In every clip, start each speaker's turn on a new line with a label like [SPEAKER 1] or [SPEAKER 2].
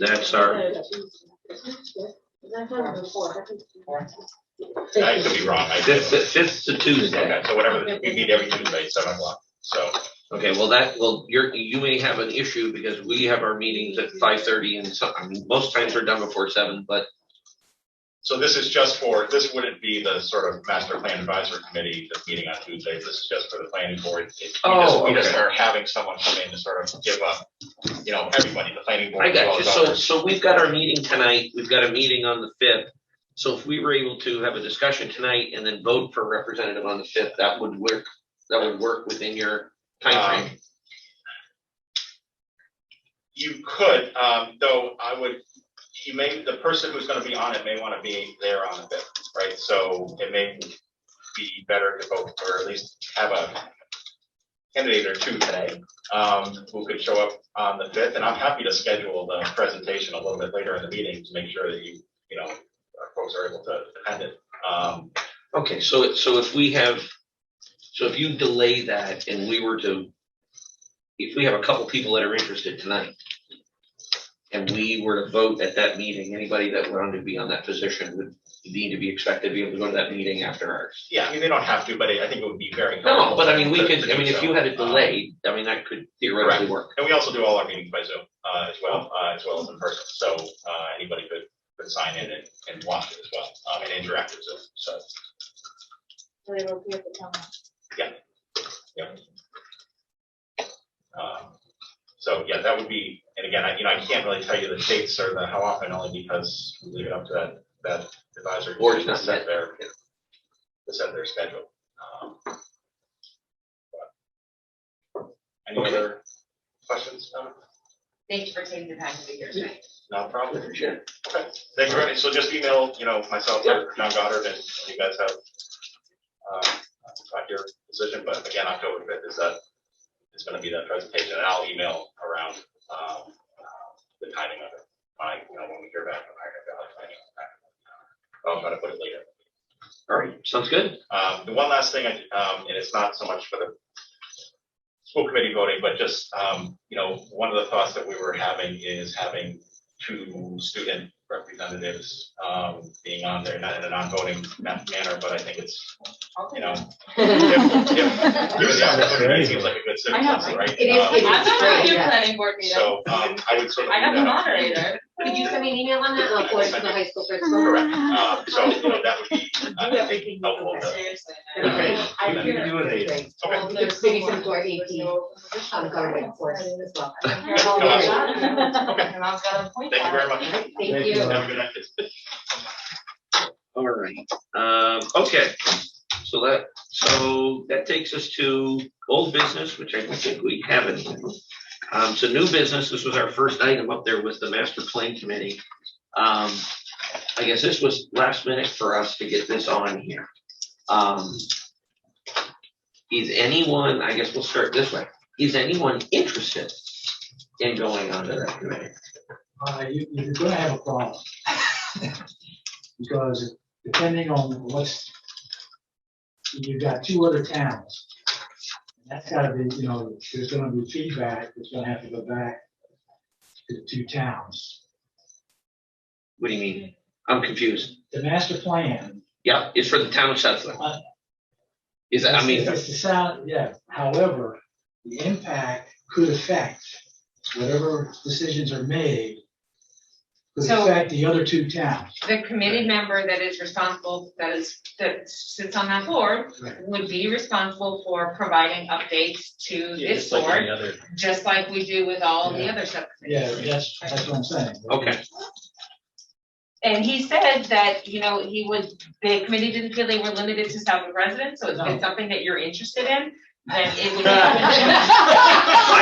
[SPEAKER 1] That's our,
[SPEAKER 2] I've done it before. I think-
[SPEAKER 3] I could be wrong, I did.
[SPEAKER 1] fifth, fifth to
[SPEAKER 3] Okay,
[SPEAKER 1] Tuesday.
[SPEAKER 3] so whatever, we meet every Tuesday at seven o'clock, so,
[SPEAKER 1] Okay, well, that, well, you're, you may have an issue because we have our meetings at five thirty and some, I mean, most times we're done before seven, but
[SPEAKER 3] so this is just for, this wouldn't be the sort of master plan advisory committee that's meeting on Tuesday, this is just for the planning board. It- we just-
[SPEAKER 1] Oh,
[SPEAKER 3] We just
[SPEAKER 1] okay.
[SPEAKER 3] are having someone come in to sort of give up, you know, everybody, the planning board.
[SPEAKER 1] I
[SPEAKER 3] as well
[SPEAKER 1] got you.
[SPEAKER 3] as
[SPEAKER 1] So,
[SPEAKER 3] others.
[SPEAKER 1] so we've got our meeting tonight. We've got a meeting on the fifth. So if we were able to have a discussion tonight and then vote for a representative on the fifth, that would work, that would work within your timeframe.
[SPEAKER 3] Um, You could, um, though I would, you may, the person who's gonna be on it may wanna be there on the fifth, right? So it may be better to vote, or at least have a candidate or two today, um, who could show up on the fifth, and I'm happy to schedule the presentation a little bit later in the meeting to make sure that you, you know, our folks are able to attend it. Um,
[SPEAKER 1] Okay, so, it- so if we have, so if you delay that and we were to, if we have a couple people that are interested tonight and we were to vote at that meeting, anybody that wanted to be on that position would need to be expected to be able to go to that meeting after ours.
[SPEAKER 3] yeah, I mean, they don't have to, but I I think it would be very.
[SPEAKER 1] No,
[SPEAKER 3] helpful
[SPEAKER 1] but I mean, we
[SPEAKER 3] to-
[SPEAKER 1] could,
[SPEAKER 3] to
[SPEAKER 1] I mean,
[SPEAKER 3] do
[SPEAKER 1] if
[SPEAKER 3] so.
[SPEAKER 1] you had it
[SPEAKER 3] Um,
[SPEAKER 1] delayed, I mean, that could theoretically work.
[SPEAKER 3] And we also do all our meetings by Zoom, uh, as well, uh, as well as in person, so, uh, anybody could, could sign in and, and watch it as well, um, and interact with Zoom, so.
[SPEAKER 2] So they will be at the town.
[SPEAKER 3] um, So, yeah, that would be, and again, I, you know, I can't really tell you the dates or the, how often, only because we leave it up to that, that advisory.
[SPEAKER 1] Or
[SPEAKER 3] committee to
[SPEAKER 1] it's not
[SPEAKER 3] set their, to set their schedule. um, but- Any
[SPEAKER 1] Okay.
[SPEAKER 3] other questions? Um,
[SPEAKER 4] Thanks for taking the time to be here tonight.
[SPEAKER 3] No problem.
[SPEAKER 1] Sure.
[SPEAKER 3] Okay, thank you very much. So just email, you know, myself or John Goddard and you guys have uh, got your decision, but again, October fifth is that, is gonna be that presentation and I'll email around um, the timing of it. I, you know, when we hear back from Iron Valley Planning. I'll try to put it later.
[SPEAKER 1] All right, sounds good.
[SPEAKER 3] Um, the one last thing, I, um, and it's not so much for the school committee voting, but just, um, you know, one of the thoughts that we were having is having two student representatives, um, being on there, not in a non-voting ma- manner, but I think it's, you know. if- if Given the opportunity, it seems like a good
[SPEAKER 4] I know,
[SPEAKER 3] citizen, right?
[SPEAKER 4] It is-
[SPEAKER 3] Um,
[SPEAKER 4] it is.
[SPEAKER 5] I've been to
[SPEAKER 4] great,
[SPEAKER 5] your
[SPEAKER 4] yeah.
[SPEAKER 5] planning board meeting.
[SPEAKER 3] So, um, I would sort of.
[SPEAKER 5] I have
[SPEAKER 3] leave
[SPEAKER 5] the
[SPEAKER 3] that up.
[SPEAKER 5] moderator.
[SPEAKER 4] Could you send me an email on that? I'll forward it to the high school principal.
[SPEAKER 3] Correct, um, so, you know, that would be, I think, helpful to-
[SPEAKER 5] Seriously.
[SPEAKER 4] That'd be great.
[SPEAKER 5] I
[SPEAKER 3] You
[SPEAKER 5] hear-
[SPEAKER 3] okay.
[SPEAKER 4] We could maybe send to our AP on government course as well.
[SPEAKER 3] Okay.
[SPEAKER 5] My mom's got a point.
[SPEAKER 3] Thank you very much.
[SPEAKER 4] Thank
[SPEAKER 6] Thank
[SPEAKER 4] you.
[SPEAKER 3] Have a good night. kids.
[SPEAKER 1] All right. Um, okay, so that, so that takes us to old business, which I don't think we have anything. Um, so new business, this was our first item up there was the master plan committee. Um, I guess this was last minute for us to get this on here. Um, is anyone, I guess we'll start this way, is anyone interested in going onto that committee?
[SPEAKER 6] Uh, you, you're gonna have a problem. Because depending on what's, you've got two other towns. That's gotta be, you know, there's gonna be feedback, that's gonna have to go back to the two towns.
[SPEAKER 1] What do you mean? I'm confused.
[SPEAKER 6] The master plan.
[SPEAKER 1] Yeah, it's for the town of Sutherland. Is, that I mean,
[SPEAKER 6] It's the sound, yeah, however, the impact could affect whatever decisions are made. Could
[SPEAKER 5] So-
[SPEAKER 6] affect the other two towns.
[SPEAKER 5] The committee member that is responsible, that is, that sits on that board,
[SPEAKER 6] Right.
[SPEAKER 5] would be responsible for providing updates to
[SPEAKER 7] Yeah,
[SPEAKER 5] this
[SPEAKER 7] just like any
[SPEAKER 5] board,
[SPEAKER 7] other.
[SPEAKER 5] just like we do with all the
[SPEAKER 6] Yeah.
[SPEAKER 5] other
[SPEAKER 6] Yeah,
[SPEAKER 5] subcommittees.
[SPEAKER 6] that's, that's what I'm saying.
[SPEAKER 1] okay,
[SPEAKER 5] And he said that, you know, he was, the committee didn't feel they were limited to Southwick residents, so if
[SPEAKER 6] No.
[SPEAKER 5] it's something that you're interested in, then it would.
[SPEAKER 1] I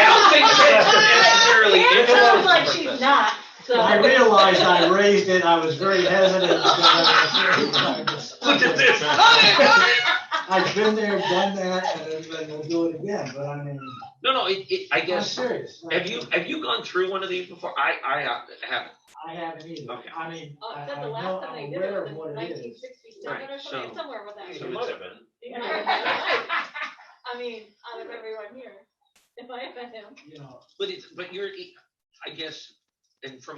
[SPEAKER 1] don't think
[SPEAKER 2] It sounds like
[SPEAKER 1] that's necessarily.
[SPEAKER 2] she's not, so.
[SPEAKER 6] I realized I raised it, I was very hesitant. because I was-
[SPEAKER 1] Look at this.
[SPEAKER 6] I've been there, done that, and then we'll do it again, but I mean,
[SPEAKER 1] No, no, it, it, I
[SPEAKER 6] I'm
[SPEAKER 1] guess,
[SPEAKER 6] serious.
[SPEAKER 1] have you, have you gone through one of these before? I, I uh, haven't.
[SPEAKER 6] I haven't either,
[SPEAKER 1] Okay.
[SPEAKER 6] I mean,
[SPEAKER 2] Oh,
[SPEAKER 6] I,
[SPEAKER 2] except
[SPEAKER 6] I
[SPEAKER 2] the
[SPEAKER 6] know,
[SPEAKER 2] last time they
[SPEAKER 6] I'm
[SPEAKER 2] did it
[SPEAKER 6] aware
[SPEAKER 2] was
[SPEAKER 6] of
[SPEAKER 2] in
[SPEAKER 6] what it
[SPEAKER 2] nineteen
[SPEAKER 6] is.
[SPEAKER 2] sixty-seven or
[SPEAKER 1] Right, so-
[SPEAKER 2] something, somewhere with that.
[SPEAKER 1] So it's a-
[SPEAKER 2] Yeah. I mean, out of everyone here, if I offend him.
[SPEAKER 6] You know,
[SPEAKER 1] But it's, but you're, I guess, and from